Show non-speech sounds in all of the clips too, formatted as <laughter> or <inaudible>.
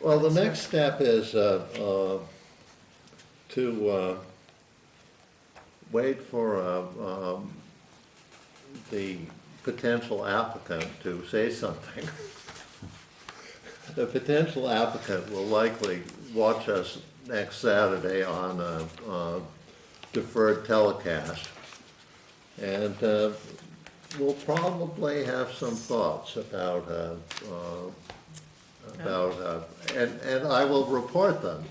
Well, the next step is uh, uh, to uh, wait for uh, um, the potential applicant to say something. <laughs> The potential applicant will likely watch us next Saturday on a uh, deferred telecast. And uh, we'll probably have some thoughts about uh, uh, about, uh, and, and I will report them.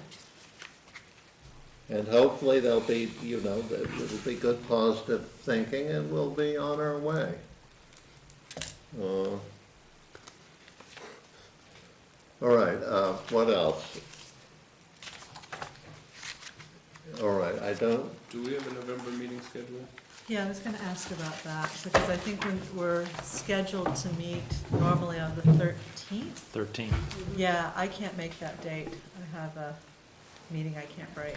And hopefully there'll be, you know, that it'll be good positive thinking and we'll be on our way. Uh, All right, uh, what else? All right, I don't, Do we have a November meeting scheduled? Yeah, I was gonna ask about that, because I think we- we're scheduled to meet normally on the thirteenth. 13. Yeah, I can't make that date. I have a meeting I can't break.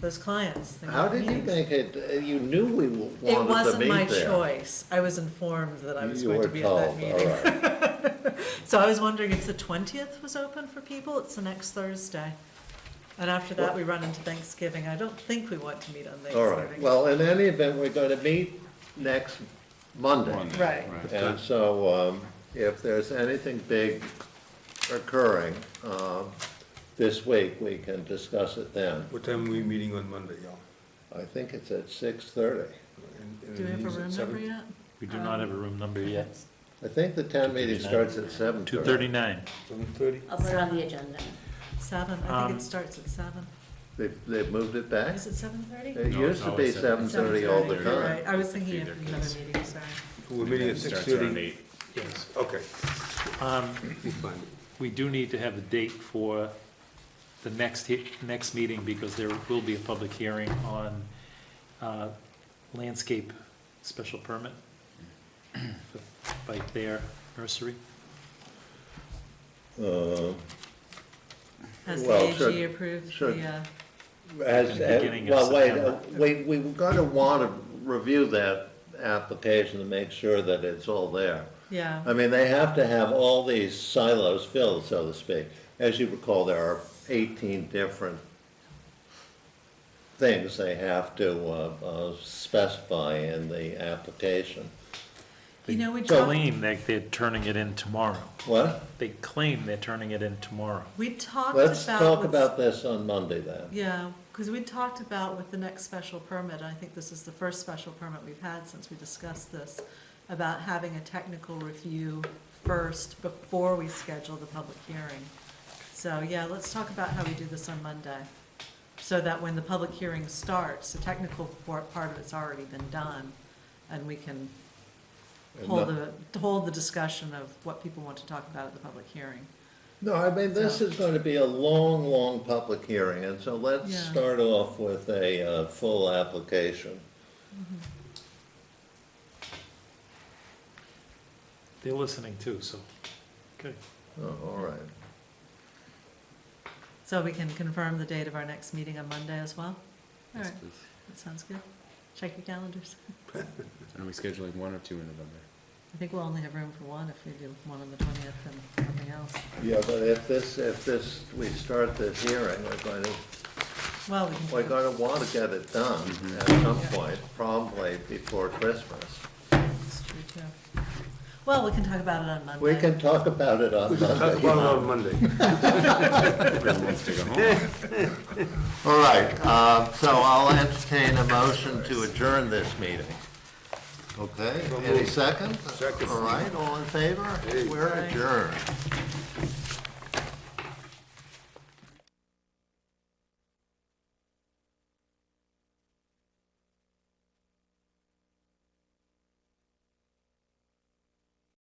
Those clients, they how have did you meetings. make it, uh, you knew we wanted to meet there. It wasn't my choice. I was informed that I was You going to were be at that told, meeting. All right. <laughs> So I was wondering if the twentieth was open for people, it's the next Thursday. And after that, we run into Thanksgiving, I don't think we want to meet on All right, Thanksgiving. well, in any event, we're going to meet next Monday. Monday, Right. And so um, if there's anything big occurring um, this week, we can discuss it then. What time are we meeting on Monday, y'all? I think it's at 6:30. And- and Do we have a meeting's at room number seven? yet? We do not have a room number yet. I think the town meeting starts at 7:30. 239. Seven thirty? I'll put it on the agenda. Seven, I think Um, it starts at seven. They've, they've moved it back? Is it seven thirty? It No, used it's to be always 7:30 eh? all the you're time. I was thinking of Either another case. meeting, sorry. We're meeting at six thirty? eight. Yes. Okay, Um, we find it. We do need to have a date for the next, he- next meeting because there will be a public hearing on uh, landscape special permit for- by their nursery. Uh, Has Well, the AG should- approved should- the, uh, As, The beginning of well, wait, uh, September. we, we are going to want to review that application to make sure that it's all there. yeah, I mean, they have to have all these silos filled, so to speak. As you recall, there are eighteen different things they have to uh, uh, specify in the application. you know, we talked, Claim that they're turning it in tomorrow. What? They claim they're turning it in tomorrow. we talked about. Let's talk what's- about this on Monday then. Yeah, because we talked about with the next special permit, I think this is the first special permit we've had since we discussed this, about having a technical review first before we schedule the public hearing. So, yeah, let's talk about how we do this on Monday, so that when the public hearing starts, the technical por- part of it's already been done, and we can And hold the- the, hold the discussion of what people want to talk about at the public hearing. No, I mean, this is going to be a long, long public hearing, and so let's Yeah. start off with a uh, full application. They're listening too, so, good. Oh, All right. So we can confirm the date of our next meeting on Monday as well? All right. please. That sounds good. Check your calendars. And are we scheduling one or two in November? I think we'll only have room for one if we do one on the twentieth and nothing else. Yeah, but if this, if this, we start this hearing, we're going to Well, we can. We're do- gonna wanna get it done at some point, probably before Christmas. It's true, too. Well, we can talk about it on Monday. We can talk about it on Talk about it Monday. Uh, on Monday. All right, uh, so I'll entertain a motion to adjourn this meeting. Okay, any second? Second. All right, all in favor? We're adjourned.